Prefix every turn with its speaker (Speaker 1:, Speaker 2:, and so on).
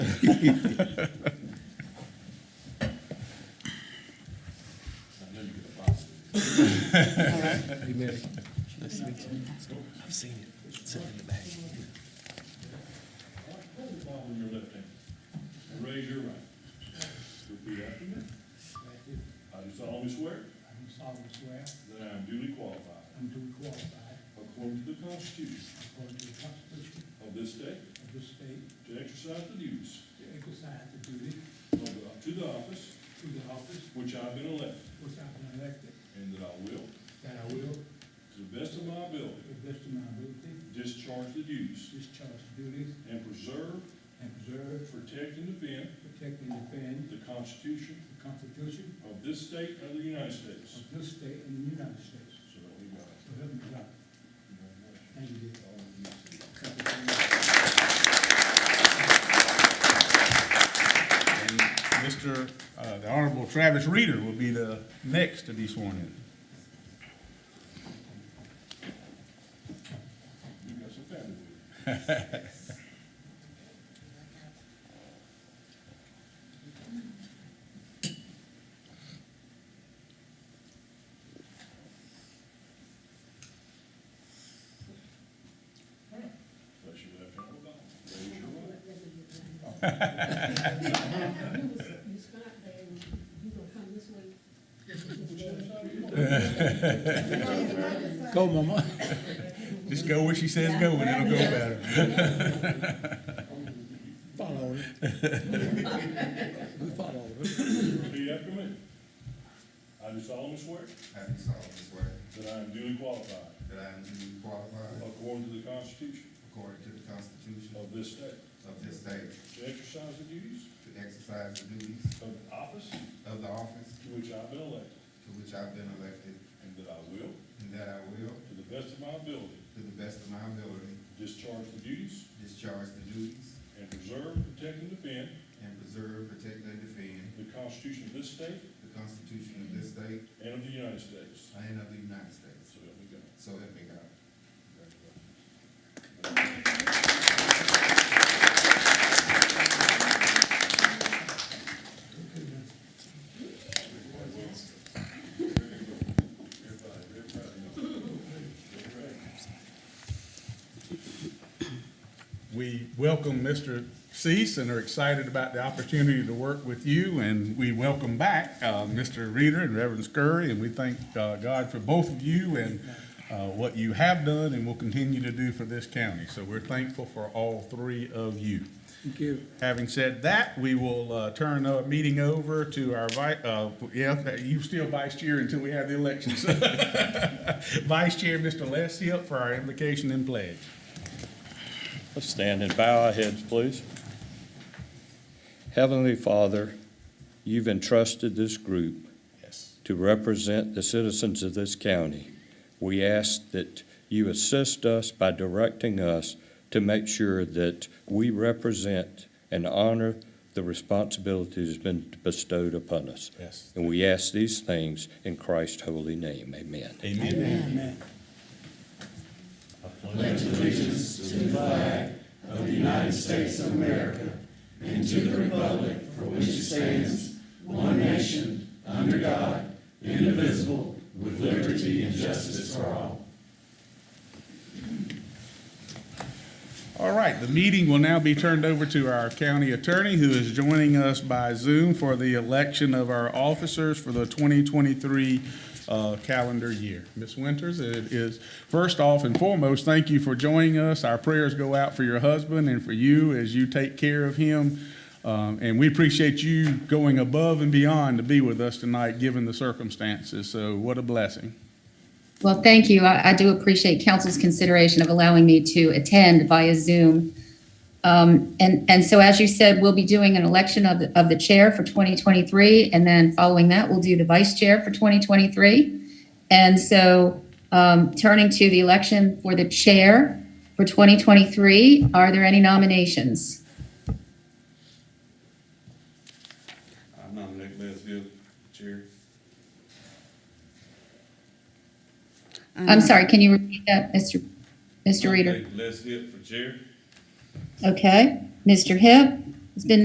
Speaker 1: I've seen it. It's in the bag.
Speaker 2: Hold the ball in your left hand and raise your right. Repeat after me. I do solemnly swear
Speaker 3: I do solemnly swear
Speaker 2: that I am duly qualified,
Speaker 3: I'm duly qualified
Speaker 2: according to the Constitution
Speaker 3: according to the Constitution
Speaker 2: of this state,
Speaker 3: of this state
Speaker 2: to exercise the duties
Speaker 3: to exercise the duty
Speaker 2: of the- to the office
Speaker 3: to the office
Speaker 2: which I've been elected,
Speaker 3: which I've been elected,
Speaker 2: and that I will,
Speaker 3: that I will, to
Speaker 2: to the best of my ability,
Speaker 3: the best of my ability,
Speaker 2: discharge the duties
Speaker 3: discharge the duties
Speaker 2: and preserve,
Speaker 3: and preserve,
Speaker 2: protect, and defend
Speaker 3: protect, and defend
Speaker 2: the Constitution
Speaker 3: the Constitution
Speaker 2: of this state and of the United States.
Speaker 3: of this state and the United States.
Speaker 2: So help me God.
Speaker 3: So help me God. Thank you.
Speaker 4: And Mr., uh, the Honorable Travis Reeder will be the next to be sworn in.
Speaker 2: You got some family with you. Bless your left hand on the Bible. Raise your right.
Speaker 4: Go, Mama. Just go where she says go, and it'll go better.
Speaker 5: Follow it. We follow it.
Speaker 2: Repeat after me. I do solemnly swear
Speaker 6: I do solemnly swear
Speaker 2: that I am duly qualified,
Speaker 6: that I am duly qualified
Speaker 2: according to the Constitution
Speaker 6: according to the Constitution
Speaker 2: of this state,
Speaker 6: of this state
Speaker 2: to exercise the duties
Speaker 6: to exercise the duties
Speaker 2: of the office
Speaker 6: of the office
Speaker 2: to which I have been elected,
Speaker 6: to which I've been elected,
Speaker 2: and that I will,
Speaker 6: and that I will,
Speaker 2: to the best of my ability,
Speaker 6: to the best of my ability,
Speaker 2: discharge the duties
Speaker 6: discharge the duties
Speaker 2: and preserve, protect, and defend
Speaker 6: and preserve, protect, and defend
Speaker 2: the Constitution of this state
Speaker 6: the Constitution of this state
Speaker 2: and of the United States.
Speaker 6: and of the United States.
Speaker 2: So help me God.
Speaker 6: So help me God.
Speaker 4: We welcome Mr. Cease and are excited about the opportunity to work with you, and we welcome back uh, Mr. Reeder and Reverend Scurry, and we thank uh, God for both of you and uh, what you have done and will continue to do for this county. So we're thankful for all three of you.
Speaker 5: Thank you.
Speaker 4: Having said that, we will uh, turn the meeting over to our vi, uh, yeah, you still vice chair until we have the elections. Vice Chair, Mr. Les Hill, for our invocation and pledge.
Speaker 7: Let's stand and bow our heads, please. Heavenly Father, you've entrusted this group
Speaker 4: Yes.
Speaker 7: to represent the citizens of this county. We ask that you assist us by directing us to make sure that we represent and honor the responsibility that's been bestowed upon us.
Speaker 4: Yes.
Speaker 7: And we ask these things in Christ's holy name. Amen.
Speaker 4: Amen. All right, the meeting will now be turned over to our county attorney, who is joining us by Zoom for the election of our officers for the 2023 uh, calendar year. Ms. Winters, it is, first off and foremost, thank you for joining us. Our prayers go out for your husband and for you as you take care of him. Um, And we appreciate you going above and beyond to be with us tonight, given the circumstances. So what a blessing.
Speaker 8: Well, thank you. I, I do appreciate council's consideration of allowing me to attend via Zoom. Um, and, and so as you said, we'll be doing an election of, the- of the chair for 2023. And then following that, we'll do the vice chair for 2023. And so, um, turning to the election for the chair for 2023, are there any nominations?
Speaker 9: I nominate Les Hill, Chair.
Speaker 8: I'm sorry, can you repeat that, Mr. Mr. Reader?
Speaker 9: Nominate Les Hill for Chair.
Speaker 8: Okay, Mr. Hip, it's been